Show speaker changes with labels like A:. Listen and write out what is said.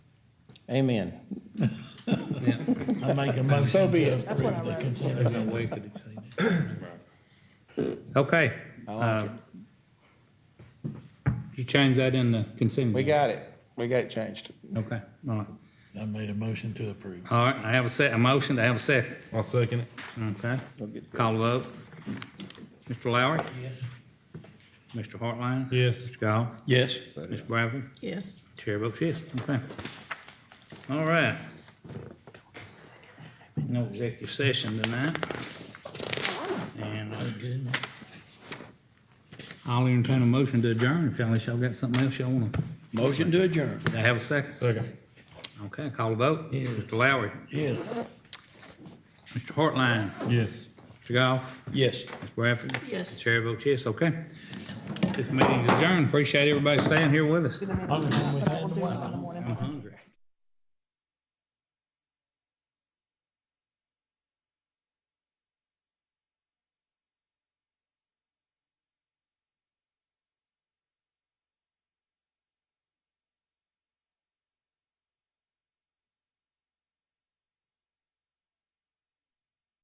A: Amen.
B: Yeah,
C: I make a motion.
A: So be
C: to
A: it.
C: approve
D: That's what I
C: the
D: wrote.
B: I was
C: consent
B: gonna
C: agenda.
B: wait till you say that. Okay.
A: I like
B: uh, You change that in the consent.
A: We got it. We got it changed.
B: Okay, all right.
C: I made a motion to approve.
B: All right, I have a se, a motion, I have a second.
E: I'll second it.
B: Okay,
A: We'll get-
B: call the vote. Mr. Lowry,
C: Yes.
B: Mr. Hartline,
E: Yes.
B: Mr. Gall,
C: Yes.
B: Ms. Bradford,
D: Yes.
B: Chair votes yes, okay. All right. No executive session tonight. And uh,
C: Good.
B: I'll entertain a motion to adjourn if y'all, if y'all got something else y'all wanna,
C: Motion to adjourn.
B: I have a second.
E: Second.
B: Okay, call the vote.
C: Yes.
B: Mr. Lowry,
C: Yes.
B: Mr. Hartline,
E: Yes.
B: Mr. Goff,
C: Yes.
B: Ms. Bradford,
D: Yes.
B: Chair votes yes, okay. This meeting is adjourned. Appreciate everybody staying here with us.
C: Other than we've had in a while.
B: I'm hungry.